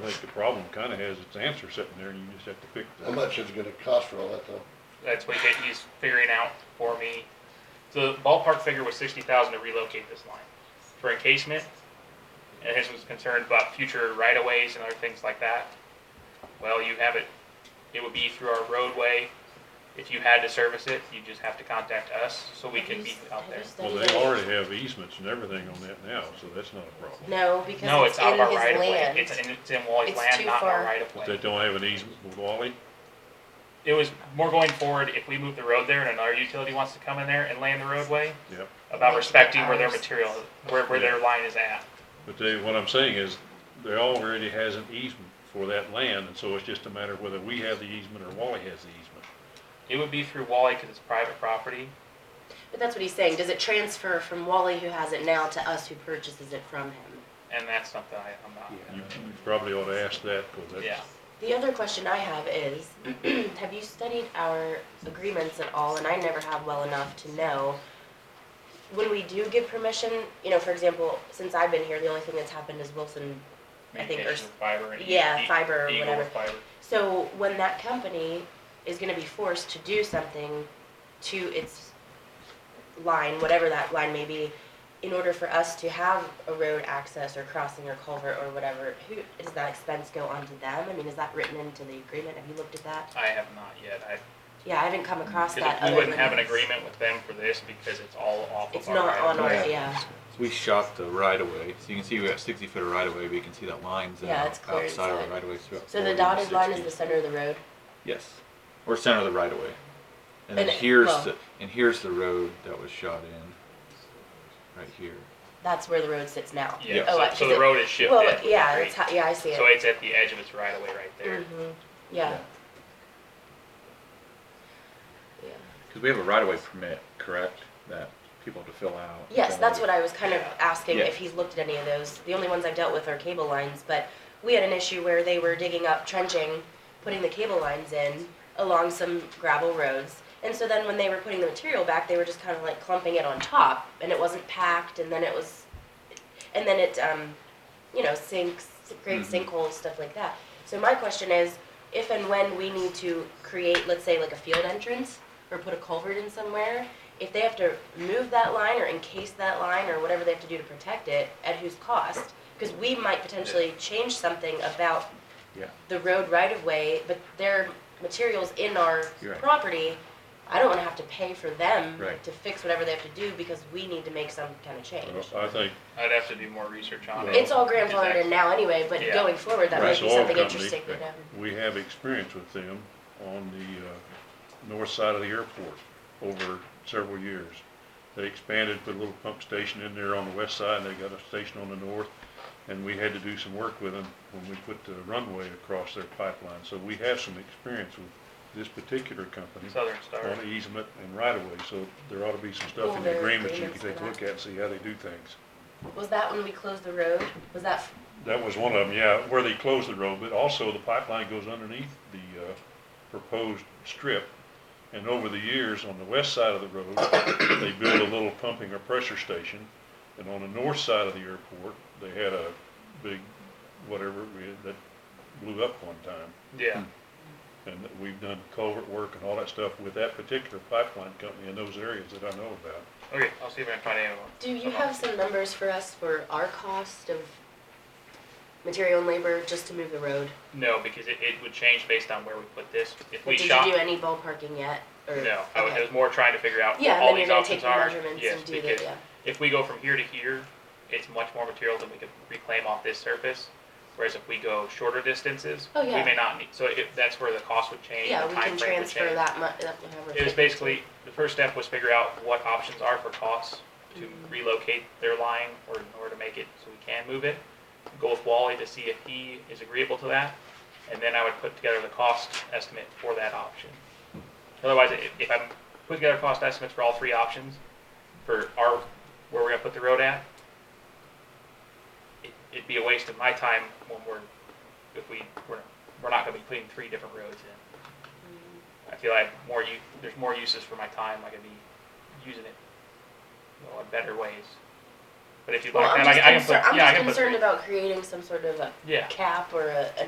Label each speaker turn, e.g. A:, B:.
A: think the problem kinda has its answer sitting there, and you just have to fix
B: How
A: it.
B: much is it gonna cost for all that though?
C: That's what that he's figuring out for me. The ballpark figure was sixty thousand to relocate this line for encasement. And his was concerned about future right of ways and other things like that. Well, you have it, it would be through our roadway. If you had to service it, you just have to contact us so we can be out there.
A: Well, they already have easements and everything on that now, so that's not a problem.
D: No, because
C: No, it's
D: it's
C: out
D: in
C: of
D: his
C: our right of way.
D: land.
C: It's in, it's in Wally's
D: It's
C: land,
D: too
C: not in our
D: far.
C: right of
A: But they
C: way.
A: don't have an easement with Wally?
C: It was more going forward, if we move the road there and another utility wants to come in there and land the roadway,
A: Yep.
C: about
D: Like
C: respecting where their
D: ours.
C: material, where, where their line is at.
A: But they, what I'm saying is, they already has an easement for that land, and so it's just a matter of whether we have the easement or Wally has the easement.
C: It would be through Wally because it's private property.
D: But that's what he's saying. Does it transfer from Wally who has it now to us who purchases it from him?
C: And that's something I, I'm not.
A: You you probably ought to ask that, cause that's.
C: Yeah.
D: The other question I have is, have you studied our agreements at all? And I never have well enough to know. When we do give permission, you know, for example, since I've been here, the only thing that's happened is Wilson. I think
C: Communication with fiber and. e-
D: Yeah,
C: e-
D: fiber or
C: Eagle with
D: whatever.
C: fiber.
D: So when that company is gonna be forced to do something to its line, whatever that line may be, in order for us to have a road access or crossing or culvert or whatever, who, does that expense go onto them? I mean, is that written into the agreement? Have you looked at that?
C: I have not yet. I,
D: Yeah, I haven't come across that
C: because
D: other
C: we wouldn't have an
D: than-
C: agreement with them for this because it's all off
D: It's
C: of our.
D: not
C: right of
D: on our,
C: way.
E: Yeah.
D: yeah,
E: So we shot the right of way, so you can see we got sixty foot of right of way, but you can see that lines
D: Yeah, it's clear
E: outside of
D: inside.
E: the right of way throughout.
D: so the dotted line is the center of the road,
E: Yes, or center of the right of way. And then
D: And it-
E: here's
D: well-
E: the, and here's the road that was shot in, right here.
D: that's where the road sits now.
C: Yeah,
D: Oh, I-
C: so, so the road is shifted.
D: Well, yeah,
C: right?
D: that's how, yeah, I see
C: So
D: it,
C: it's at the edge of its right away right there.
D: Mhm. yeah. Yeah.
E: Cause we have a right of way permit, correct, that people have to fill out.
D: Yes, that's what I was kind of asking
E: Yeah.
D: if he's looked at any of those. The only ones I've dealt with are cable lines, but we had an issue where they were digging up, trenching, putting the cable lines in along some gravel roads. And so then when they were putting the material back, they were just kind of like clumping it on top and it wasn't packed and then it was, and then it, um, you know, sinks, great
E: Mhm.
D: sinkholes, stuff like that. So my question is, if and when we need to create, let's say like a field entrance or put a culvert in somewhere, if they have to move that line or encase that line or whatever they have to do to protect it, at whose cost? Because we might potentially change something about
E: Yeah.
D: the road right of way, but their materials in our
E: You're right.
D: property, I don't wanna have to pay for them
E: Right.
D: to fix whatever they have to do because we need to make some kind of change.
A: Well, I think
C: I'd have to do more research on it.
D: Mm-hmm. It's all grandfathered in now anyway, but
C: Yeah.
D: going forward, that might
A: Right.
D: be
A: Oil
D: something
A: company.
D: interesting, you know?
A: we have experience with them on the, uh, north side of the airport over several years. They expanded, put a little pump station in there on the west side, they got a station on the north, and we had to do some work with them when we put the runway across their pipeline. So we have some experience with this particular company.
C: Southern Star.
A: on easement and right of way, so there ought to be some stuff in
D: Well, there
A: the
D: are
A: agreements you can
D: agreements for
A: take a
D: that.
A: look at and see how they do things.
D: Was that when we closed the road? Was that, f-
A: That was one of them, yeah, where they closed the road, but also the pipeline goes underneath the, uh, proposed strip. And over the years, on the west side of the road, they built a little pumping or pressure station. And on the north side of the airport, they had a big, whatever, it was that blew up one time.
C: Yeah.
A: And that we've done culvert work and all that stuff with that particular pipeline company in those areas that I know about.
C: Okay, I'll see if I can find anyone.
D: do you have some numbers for us for our cost of material and labor just to move the road?
C: No, because it, it would change based on where we put this. If we
D: Did you
C: shot.
D: do any ballparking yet? or-
C: No, I was, I
D: okay.
C: was more trying to figure out what
D: Yeah,
C: all
D: and then you're
C: these
D: gonna take
C: options
D: the
C: are.
D: measurements
C: Yes,
D: and do the,
C: because
D: yeah.
C: if we go from here to here, it's much more material than we could reclaim off this surface. Whereas if we go shorter distances,
D: Oh,
C: we
D: yeah.
C: may not need, so it, that's where the cost would change,
D: Yeah,
C: the
D: we can
C: timeframe would
D: transfer
C: change.
D: that much, that whatever.
C: It was basically, the first step was figure out what options are for costs to relocate their line or in order to make it so we can move it. Go with Wally to see if he is agreeable to that, and then I would put together the cost estimate for that option. Otherwise, i- if I'm putting together cost estimates for all three options, for our, where we're gonna put the road at, it- it'd be a waste of my time when we're, if we, we're, we're not gonna be putting three different roads in. I feel like more you there's more uses for my time. I could be using it you know, in better ways. But if you'd
D: Well,
C: like
D: I'm
C: that, I
D: just
C: can, I can
D: concerned,
C: put, yeah, I
D: I'm
C: can
D: just
C: put.
D: concerned about creating some sort of a
C: Yeah.
D: cap or a, an